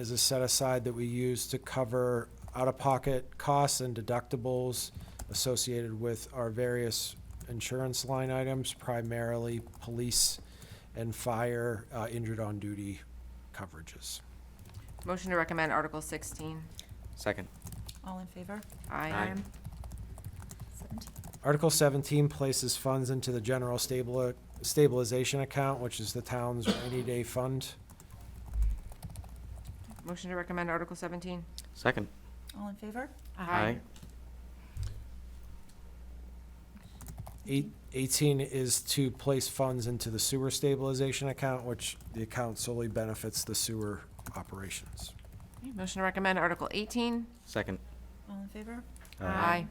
is a set aside that we use to cover out-of-pocket costs and deductibles associated with our various insurance line items, primarily police and fire uh, injured on duty coverages. Motion to recommend Article 16. Second. All in favor? Aye. Aye. Seventeen. Article 17 places funds into the general stabil- stabilization account, which is the town's rainy day fund. Motion to recommend Article 17. Second. All in favor? Eight- 18 is to place funds into the sewer stabilization account, which the account solely benefits the sewer operations. Okay, Motion to recommend Article 18. Second. All in favor? Aye.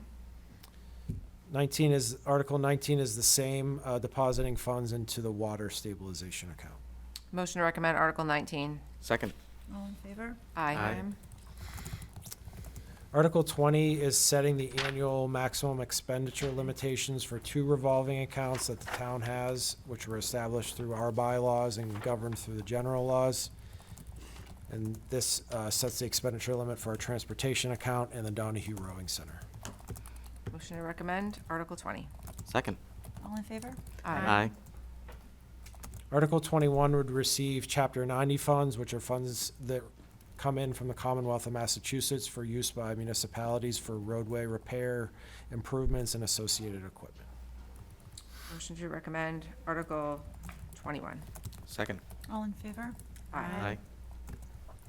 19 is, Article 19 is the same, uh, depositing funds into the water stabilization account. Motion to recommend Article 19. Second. All in favor? Aye. Aye. Article 20 is setting the annual maximum expenditure limitations for two revolving accounts that the town has, which were established through our bylaws and governed through the general laws. And this uh, sets the expenditure limit for our transportation account and the Donahue Rowing Center. Motion to recommend Article 20. Second. All in favor? Aye. Article 21 would receive Chapter 90 funds, which are funds that come in from the Commonwealth of Massachusetts for use by municipalities for roadway repair, improvements, and associated equipment. Motion to recommend Article 21. Second. All in favor? Aye.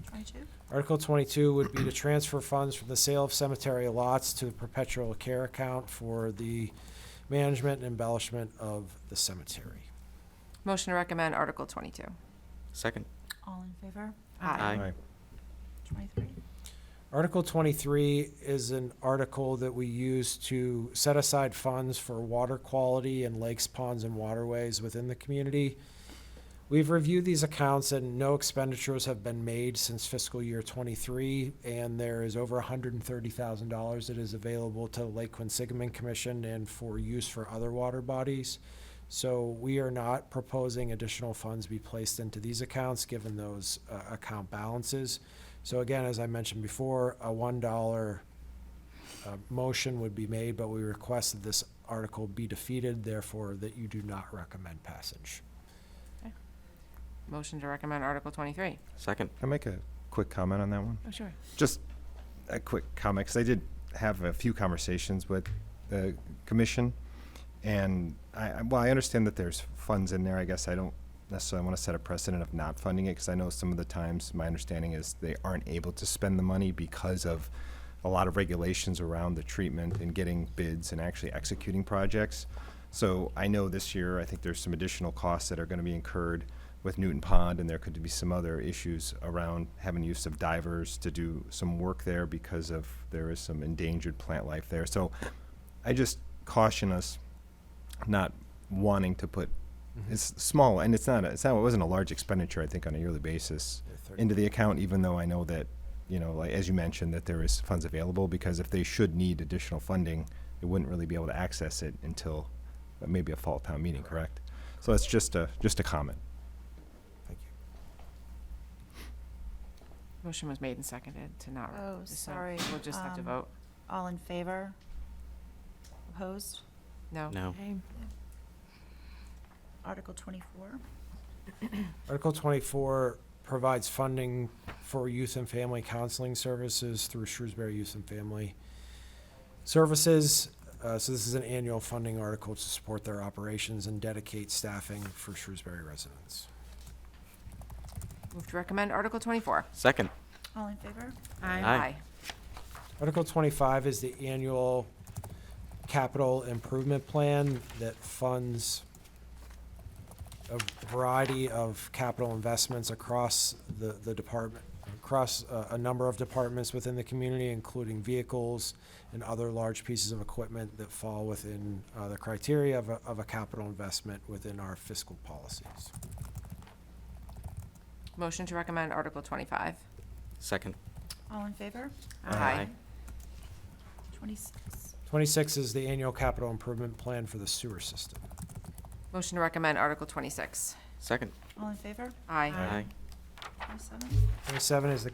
Twenty-two? Article twenty-two would be to transfer funds from the sale of cemetery lots to the perpetual care account for the management and embellishment of the cemetery. Motion to recommend Article 22. Second. All in favor? Aye. Twenty-three? Article twenty-three is an article that we use to set aside funds for water quality in lakes, ponds, and waterways within the community. We've reviewed these accounts and no expenditures have been made since fiscal year twenty-three, and there is over hundred and thirty thousand dollars that is available to the Lake Quinsigamon Commission and for use for other water bodies. So we are not proposing additional funds be placed into these accounts, given those, uh, account balances. So again, as I mentioned before, a one dollar uh, motion would be made, but we request that this article be defeated, therefore that you do not recommend passage. Motion to recommend Article 23. Second. Can I make a quick comment on that one? Oh, sure. Just a quick comment, because I did have a few conversations with the commission, and I, I- well, I understand that there's funds in there, I guess I don't necessarily want to set a precedent of not funding it, because I know some of the times, my understanding is they aren't able to spend the money because of a lot of regulations around the treatment and getting bids and actually executing projects. So I know this year, I think there's some additional costs that are going to be incurred with Newton Pond, and there could be some other issues around having use of divers to do some work there because of, there is some endangered plant life there. So I just caution us not wanting to put, it's small, and it's not, a- it's not, it wasn't a large expenditure, I think, on a yearly basis into the account, even though I know that, you know, like, as you mentioned, that there is funds available, because if they should need additional funding, they wouldn't really be able to access it until uh, maybe a fall town meeting, correct? So that's just a, just a comment. Thank you. Motion was made and seconded to not. Oh, so sorry, We'll just have to um, vote. All in favor? Opposed? No? No. Okay. Article twenty-four? Article twenty-four provides funding for youth and family counseling services through Shrewsbury Youth and Family Services. Uh, so this is an annual funding article to support their operations and dedicate staffing for Shrewsbury residents. Move to recommend Article 24. Second. All in favor? Aye. Article twenty-five is the annual capital improvement plan that funds a variety of capital investments across the, the department, across uh, a, a number of departments within the community, including vehicles and other large pieces of equipment that fall within, uh, the criteria of a, of a capital investment within our fiscal policies. Motion to recommend Article 25. Second. All in favor? Aye. Twenty-six? Twenty-six is the annual capital improvement plan for the sewer system. Motion to recommend Article 26. Second. All in favor? Aye. Twenty-seven? Twenty-seven is the